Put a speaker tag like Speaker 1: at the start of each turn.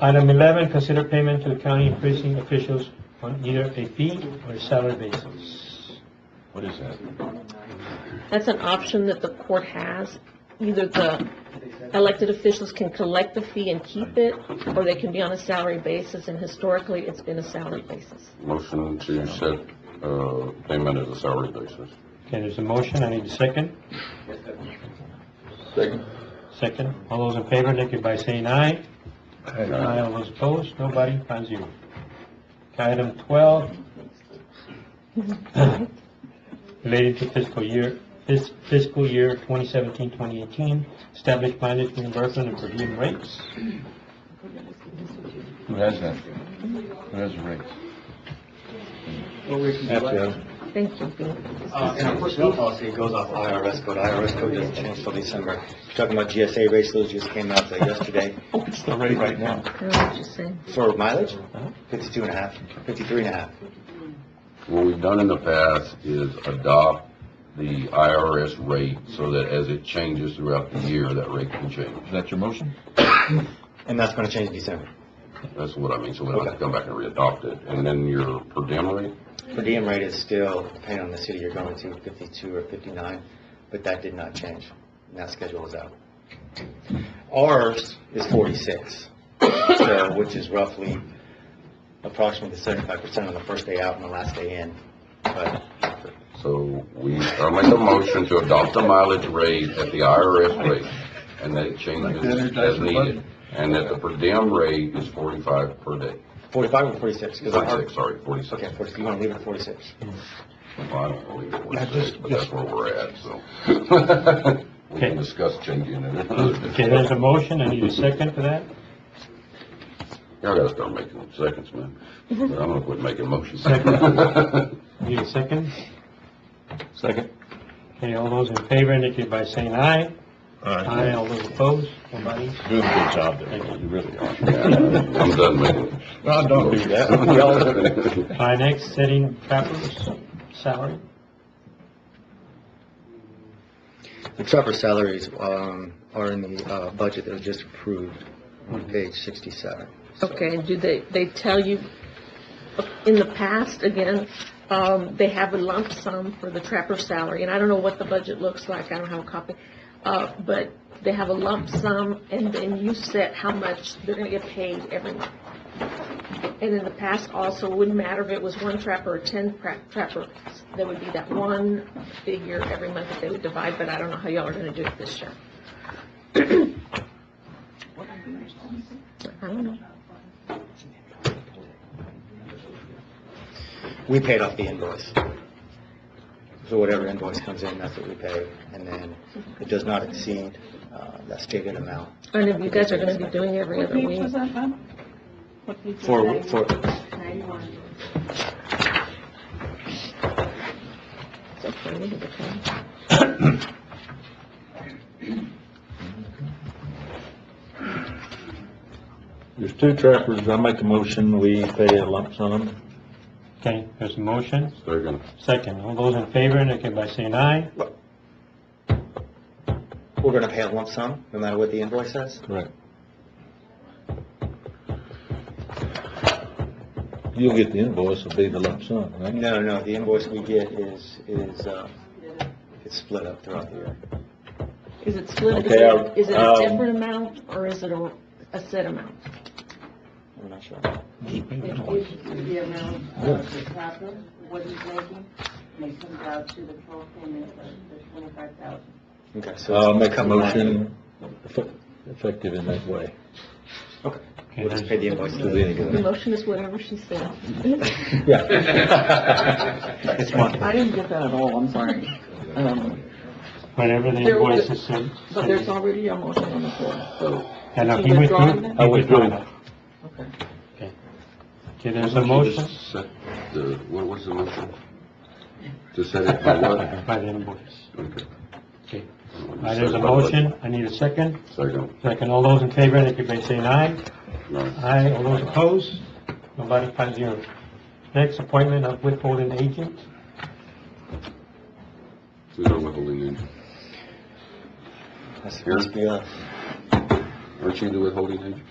Speaker 1: Item eleven, consider payment to county precinct officials on either a fee or a salary basis.
Speaker 2: What is that?
Speaker 3: That's an option that the court has. Either the elected officials can collect the fee and keep it, or they can be on a salary basis, and historically, it's been a salary basis.
Speaker 4: Motion to set, uh, payment as a salary basis.
Speaker 1: Okay, there's a motion, I need a second.
Speaker 4: Second.
Speaker 1: Second, all those in favor, indicate by saying aye. Aye, all those opposed, nobody, five zero. Okay, Item twelve, related to fiscal year, fis- fiscal year 2017-2018, establish mileage reimbursement and per diem rates.
Speaker 2: Who has that? Who has the rates?
Speaker 5: Well, we can do that.
Speaker 3: Thank you, Bea.
Speaker 5: Uh, in our personnel policy, it goes off IRS code. IRS code doesn't change till December. You're talking about GSA rates, those just came out uh, yesterday.
Speaker 2: What's Oh, the rate right now?
Speaker 3: I don't know what you're saying.
Speaker 5: For mileage,
Speaker 1: Uh-huh.
Speaker 5: fifty-two and a half, fifty-three and a half.
Speaker 4: What we've done in the past is adopt the IRS rate so that as it changes throughout the year, that rate can change.
Speaker 2: Is that your motion?
Speaker 5: And that's gonna change in December.
Speaker 4: That's what I mean, so we don't have to come back and readopt it. And then your per diem rate,
Speaker 5: Per diem rate is still, depending on the city you're going to, fifty-two or fifty-nine, but that did not change. And that schedule is out. Ours is forty-six, so, which is roughly approximately seventy-five percent on the first day out and the last day in. But
Speaker 4: so we, I make a motion to adopt the mileage rate at the IRS rate, and that it changes as needed. And that the per diem rate is forty-five per day,
Speaker 5: forty-five or forty-six? 'Cause our-
Speaker 4: forty-six, sorry, forty-six.
Speaker 5: Okay, forty-six, you wanna leave it at forty-six?
Speaker 4: Well, I don't believe it
Speaker 2: I
Speaker 4: was
Speaker 2: just-
Speaker 4: six, but that's
Speaker 2: just-
Speaker 4: where we're at, so. We
Speaker 1: Okay.
Speaker 4: can discuss changing it another
Speaker 1: Okay,
Speaker 4: day.
Speaker 1: there's a motion, I need a second for that.
Speaker 4: Y'all gotta start making seconds, man. But I'm gonna quit making motions.
Speaker 1: Second. Need a second?
Speaker 2: Second.
Speaker 1: Okay, all those in favor, indicate by saying aye.
Speaker 2: All right.
Speaker 1: Aye, all those opposed, nobody.
Speaker 2: Doing a good job there, you really are.
Speaker 4: Yeah, I'm done making.
Speaker 2: Well, don't do that.
Speaker 4: that.
Speaker 1: All right, next, setting trappers' salary.
Speaker 5: The trapper salaries, um, are in the, uh, budget that was just approved on page sixty-seven.
Speaker 3: Okay, and do they, they tell you, in the past, again, um, they have a lump sum for the trapper's salary, and I don't know what the budget looks like, I don't have a copy, uh, but they have a lump sum, and then you set how much they're gonna get paid every month. And in the past also, it wouldn't matter if it was one trapper or ten pra- trapper, there would be that one figure every month that they would divide, but I don't know how y'all are gonna do it this year. I don't know.
Speaker 5: We paid off the invoice. So whatever invoice comes in, that's what we pay, and then it does not exceed, uh, that stated amount.
Speaker 3: And if you guys are gonna be doing every other week.
Speaker 5: For, for,
Speaker 3: It's okay, we need to come.
Speaker 6: There's two trappers, I make a motion, we pay a lump sum.
Speaker 1: Okay, there's a motion,
Speaker 4: They're gonna,
Speaker 1: second. All those in favor, indicate by saying aye.
Speaker 5: we're gonna pay a lump sum, no matter what the invoice says?
Speaker 6: Correct. You'll get the invoice, it'll be the lump sum, right?
Speaker 5: No, no, the invoice we get is, is, uh, it's split up throughout the year.
Speaker 3: Is it split, is
Speaker 6: Okay,
Speaker 3: it, is it a
Speaker 6: um,
Speaker 3: different amount, or is it a, a set amount?
Speaker 5: I'm not sure.
Speaker 7: It's the amount of the proper, what he's making, and it comes out to the total payment of the twenty-five thousand.
Speaker 5: Okay, so.
Speaker 6: I'll make a
Speaker 5: Come on.
Speaker 6: motion eff- effective in that way.
Speaker 5: Okay,
Speaker 1: Okay,
Speaker 5: we'll just pay
Speaker 1: there's-
Speaker 5: the invoice.
Speaker 6: Do any good.
Speaker 3: The motion is whatever she said.
Speaker 6: Yeah.
Speaker 5: It's one.
Speaker 8: I didn't get that at all, I'm sorry. Um,
Speaker 1: whatever the
Speaker 8: There was-
Speaker 1: invoice is said.
Speaker 8: But there's already a motion on the floor, so,
Speaker 1: And if
Speaker 8: you
Speaker 1: he withdrew,
Speaker 8: withdrawing
Speaker 1: he
Speaker 8: that?
Speaker 6: I withdrew.
Speaker 1: withdrew.
Speaker 8: okay.
Speaker 1: Okay, there's a motion
Speaker 4: Just set the, what was the motion? To set it by what?
Speaker 1: by the invoice.
Speaker 4: Okay.
Speaker 1: Okay, all right, there's a motion, I need a second.
Speaker 4: Second,
Speaker 1: Second, all those in favor, indicate by saying aye.
Speaker 4: no.
Speaker 1: Aye, all those opposed, nobody, five zero. Next, appointment of withholding agent.
Speaker 4: Who's our withholding agent?
Speaker 5: That's supposed to be a-
Speaker 4: Aren't you the withholding agent?